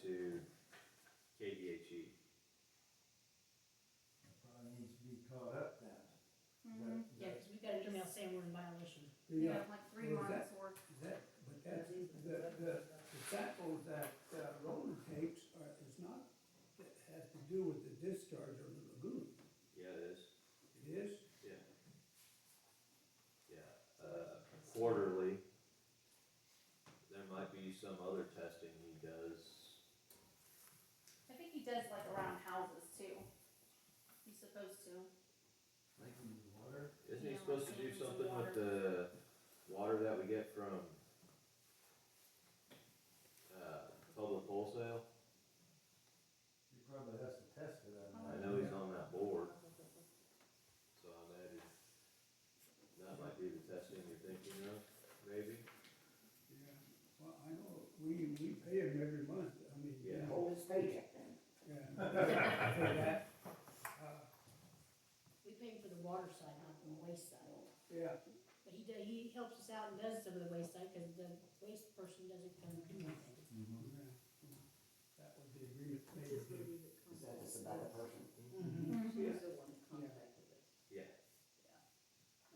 E. Mm-hmm. you know, Yeah. like three What is months that? worth. Is uh, that, but that's, the, the, the sample that uh, Roland takes are, is not, it has to do with the discharge of the lagoon. Yeah, it is, It is, yeah. Yeah, uh, quarterly. There might be some other testing he does, I think he does like around houses too. He's supposed to. Like in the water? isn't he Yeah, supposed to like do taking some something water. with the water that we get from? Uh, public wholesale, He probably has to test it, I I imagine. know he's on that board. So I imagine that might be the testing you're thinking of, maybe? yeah, well, I know, we, we pay him every month, I mean, you Yeah. know, Hold his paycheck then. yeah. For that, uh, We pay him for the water side, not the waste side. Yeah, But he, do- he helps us out and does some of the waste side, because the waste person doesn't come and do anything. Mm-hmm. yeah, that was the agreement Mm-hmm. they did. Is that just about a person? She's the one that contacted us. Yeah.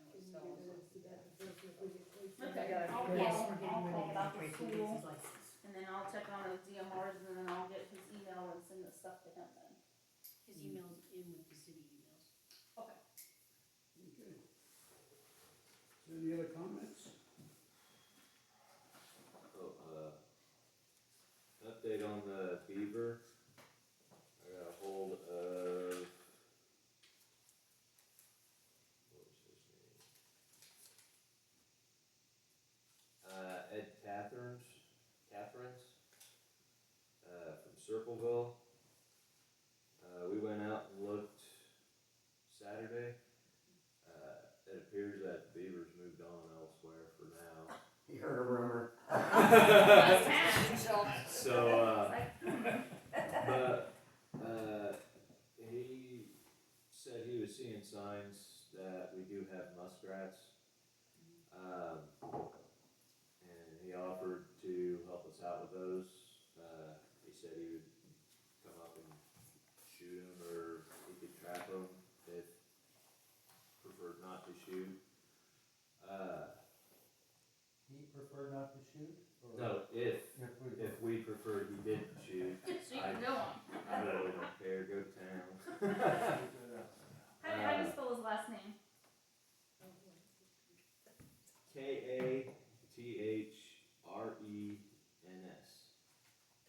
And we saw it. Okay, I'll call, I'll call about the school, and then I'll check on those DMRs, and then I'll get his email and send the stuff to him then. His email's in with the city emails. Okay. Okay. So Any other comments? Oh, uh, update on the beaver. I got a hold of. What was his name? Uh, Ed Catherines, Catherines, uh, from Circleville. Uh, we went out and looked Saturday. Uh, it appears that the beavers moved on elsewhere for now. You heard a rumor. So, uh, but, uh, he said he was seeing signs that we do have muskrats. Um, and he offered to help us out with those. Uh, he said he would come up and shoot them or he could trap them if preferred not to shoot. Uh, He preferred not to shoot? or- no, if, If we- if we preferred he didn't shoot, So you can go on. I really don't care, go to town. E